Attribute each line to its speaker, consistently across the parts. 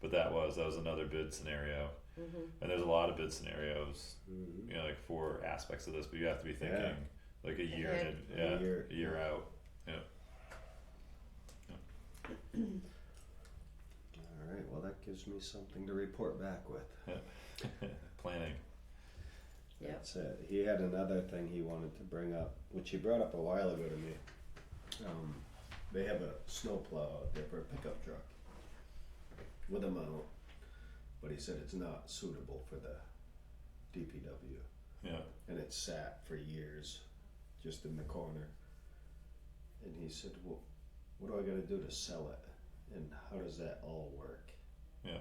Speaker 1: but that was that was another bid scenario,
Speaker 2: Mhm.
Speaker 1: and there's a lot of bid scenarios,
Speaker 3: Mhm.
Speaker 1: you know, like for aspects of this. But you have to be thinking
Speaker 3: Yeah.
Speaker 1: like a year, in,
Speaker 2: Ahead.
Speaker 1: yeah,
Speaker 3: A year.
Speaker 1: a year out.
Speaker 3: Alright, well, that gives me something to report back with.
Speaker 1: Planning.
Speaker 2: Yep.
Speaker 3: That's it. He had another thing he wanted to bring up, which he brought up a while ago to me. Um, they have a snowplow out there for a pickup truck with a mount, but he said it's not suitable for the DPW.
Speaker 1: Yeah.
Speaker 3: And it sat for years just in the corner. And he said, Well, what do I got to do to sell it? And how does that all work?
Speaker 1: Yeah.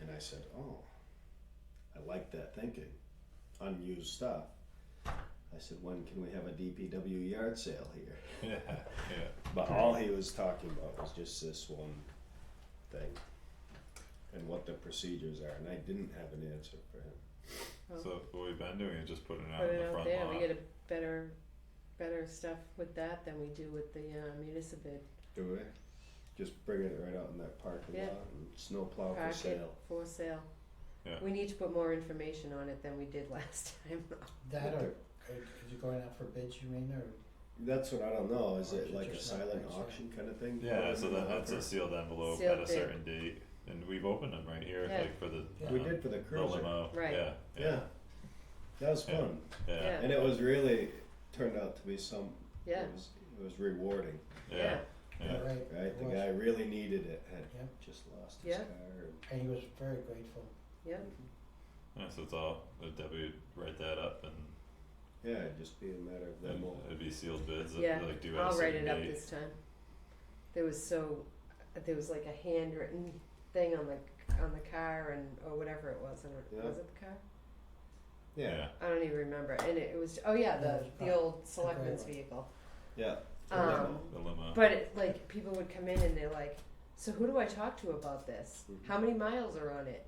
Speaker 3: And I said, Oh, I like that thinking. Unused stuff. I said, When can we have a DPW yard sale here?
Speaker 1: Yeah. Yeah.
Speaker 3: But all he was talking about was just this one thing and what the procedures are. And I didn't have an answer for him.
Speaker 2: Oh.
Speaker 1: So what we've been doing is just putting it out
Speaker 2: Put
Speaker 1: in
Speaker 2: it
Speaker 1: the
Speaker 2: out
Speaker 1: front
Speaker 2: there,
Speaker 1: lawn.
Speaker 2: we get a better, better stuff with that than we do with the uh, municipal
Speaker 3: Do we? Just bring it right out in that parking
Speaker 2: Yeah.
Speaker 3: lot and snow plow Oh, for
Speaker 2: packet
Speaker 3: sale.
Speaker 2: for sale.
Speaker 1: Yeah.
Speaker 2: We need to put more information on it than we did last time.
Speaker 4: That or, or could you going out for bids, you mean, or?
Speaker 3: That's what I don't know. Is it
Speaker 4: Auction,
Speaker 3: like a
Speaker 4: just not
Speaker 3: silent
Speaker 4: like so.
Speaker 3: auction kind of thing?
Speaker 1: Yeah, so that, that's a sealed envelope
Speaker 2: Mm-hmm. Sealed
Speaker 1: at a
Speaker 2: bid.
Speaker 1: certain date, and we've opened them right here,
Speaker 2: Yeah.
Speaker 1: like for the
Speaker 4: Yeah.
Speaker 3: We
Speaker 1: um,
Speaker 3: did for the
Speaker 1: the
Speaker 3: cruiser.
Speaker 1: limo.
Speaker 2: Right.
Speaker 1: Yeah.
Speaker 3: Yeah. That was
Speaker 1: Yeah.
Speaker 3: fun.
Speaker 1: Yeah.
Speaker 2: Yeah.
Speaker 3: And it was really turned out to be some
Speaker 2: Yeah,
Speaker 3: it was it was rewarding,
Speaker 1: Yeah. Yeah.
Speaker 4: Yeah, right.
Speaker 3: right?
Speaker 4: it
Speaker 3: The
Speaker 4: was.
Speaker 3: guy really needed it, had
Speaker 4: Yeah.
Speaker 3: just lost his
Speaker 2: Yeah.
Speaker 3: car and
Speaker 4: And he was very grateful.
Speaker 2: yeah,
Speaker 1: Yeah, so it's all if Debbie would write that up and,
Speaker 3: yeah, it'd just be a matter of them
Speaker 1: and uh,
Speaker 3: all
Speaker 1: it'd be sealed bids that
Speaker 2: Yeah,
Speaker 1: like do at a
Speaker 2: I'll write
Speaker 1: certain
Speaker 2: it up
Speaker 1: date.
Speaker 2: this time. There was so, there was like a handwritten thing on the, on the car and, or whatever it was, I
Speaker 3: Yeah.
Speaker 2: don't, was it the car?
Speaker 3: Yeah.
Speaker 2: I don't even remember, and it was, oh yeah, the, the old
Speaker 4: gray
Speaker 2: selectman's
Speaker 4: one.
Speaker 2: vehicle.
Speaker 3: Yeah.
Speaker 2: Um,
Speaker 1: The limo.
Speaker 2: But it, like people would come in and they're like, "So who do I talk to about this?
Speaker 3: Mhm.
Speaker 2: How many miles are on it?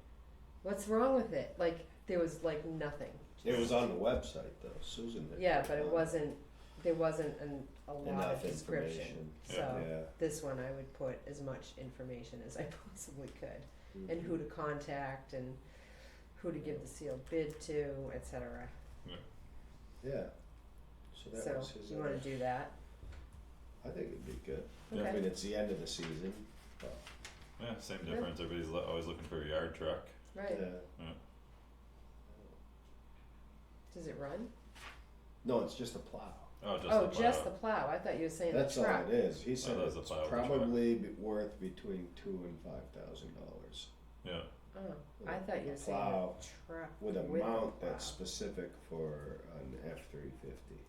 Speaker 2: What's wrong with it?" Like there was like nothing.
Speaker 3: It was on the website though, Susan had
Speaker 2: Yeah, but it
Speaker 3: done
Speaker 2: wasn't. There wasn't an, a lot
Speaker 3: enough
Speaker 2: of description.
Speaker 3: information.
Speaker 2: So
Speaker 3: Yeah.
Speaker 2: this one, I would put as much information as I possibly could, um, and who to contact, and who to give the sealed bid to, etc.
Speaker 3: Yeah. So that
Speaker 2: So
Speaker 3: was his
Speaker 2: you want
Speaker 3: idea.
Speaker 2: to do that?
Speaker 3: I think it'd be good. I
Speaker 2: Okay.
Speaker 3: mean, it's the end of the season.
Speaker 1: yeah, same
Speaker 2: Yeah.
Speaker 1: difference. Everybody's lo- always looking for a yard truck.
Speaker 2: Right.
Speaker 3: Yeah.
Speaker 1: Yeah.
Speaker 2: Does it run?
Speaker 3: No, it's just a plow.
Speaker 1: Oh, just
Speaker 2: oh,
Speaker 1: the plow.
Speaker 2: just the plow. I thought you were saying
Speaker 3: That's
Speaker 2: the
Speaker 3: all
Speaker 2: truck.
Speaker 3: it is. He said
Speaker 1: that's a
Speaker 3: it's
Speaker 1: plow with a truck.
Speaker 3: probably be- worth between two and five thousand dollars
Speaker 1: yeah.
Speaker 2: Oh, I thought you were saying
Speaker 3: Plow
Speaker 2: a truck.
Speaker 3: with a mount that's
Speaker 2: plow.
Speaker 3: specific for an F three fifty.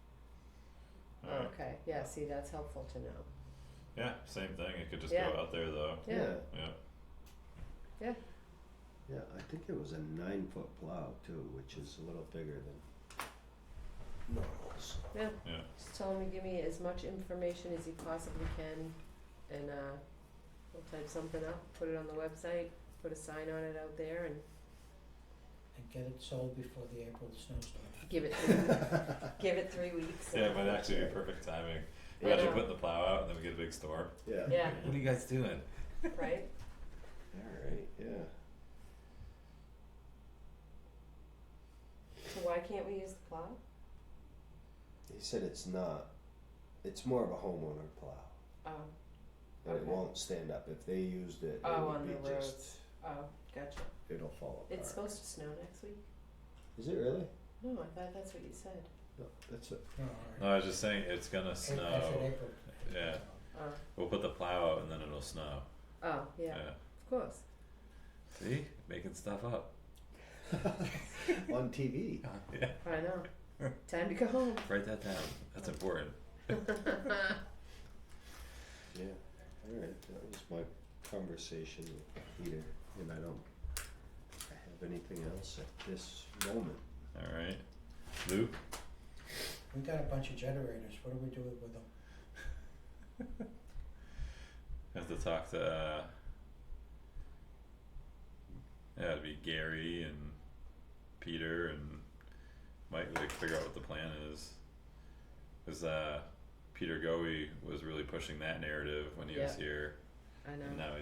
Speaker 1: All right.
Speaker 2: Okay, yeah, see, that's helpful to know.
Speaker 1: Yeah, same thing. It could just
Speaker 2: Yeah.
Speaker 1: go out there though.
Speaker 2: Yeah,
Speaker 1: Yeah.
Speaker 3: Yeah, I think it was a nine foot plow too, which is a little bigger than normals.
Speaker 2: just tell him to give me as much information as he possibly can and, uh, we'll type something up, put it on the website, put a sign on it out there and
Speaker 4: And get it sold before the April snowstorm.
Speaker 2: give it, three- give it three weeks.
Speaker 1: Yeah, it might actually be perfect timing. We
Speaker 2: I
Speaker 1: actually put
Speaker 2: know.
Speaker 1: the plow out and then we get a big storm.
Speaker 3: Yeah.
Speaker 2: Yeah,
Speaker 1: What are you guys doing?
Speaker 2: right?
Speaker 3: Alright, yeah.
Speaker 2: So why can't we use the plow?
Speaker 3: He said it's not, it's more of a homeowner plow.
Speaker 2: Oh,
Speaker 3: And it
Speaker 2: Okay.
Speaker 3: won't stand up. If they used it, it
Speaker 2: Oh,
Speaker 3: would
Speaker 2: on
Speaker 3: be
Speaker 2: the
Speaker 3: just,
Speaker 2: oh, gotcha.
Speaker 3: it'll fall apart.
Speaker 2: It's supposed to snow next week?
Speaker 3: Is it really?
Speaker 2: No, I thought that's what you said.
Speaker 3: No, that's it.
Speaker 4: No,
Speaker 1: No, I was just saying it's gonna
Speaker 4: I said
Speaker 1: snow.
Speaker 4: April.
Speaker 1: Yeah.
Speaker 2: Oh,
Speaker 1: We'll put the plow out and then it'll snow.
Speaker 2: oh, yeah, of course.
Speaker 1: See? Making stuff up.
Speaker 3: on TV.
Speaker 1: Yeah.
Speaker 2: I know. Time to go home.
Speaker 1: Write that down. That's important.
Speaker 3: Yeah. All right. That was my conversation with Peter, and I don't think I have anything else at this moment.
Speaker 1: All right. Luke?
Speaker 4: We got a bunch of generators, what do we do with them?
Speaker 1: Have to talk to uh Yeah, it'd be Gary and Peter and Mike like figure out what the plan is. Cause uh Peter Goey was really pushing that narrative when he was here.
Speaker 2: I know.
Speaker 1: And now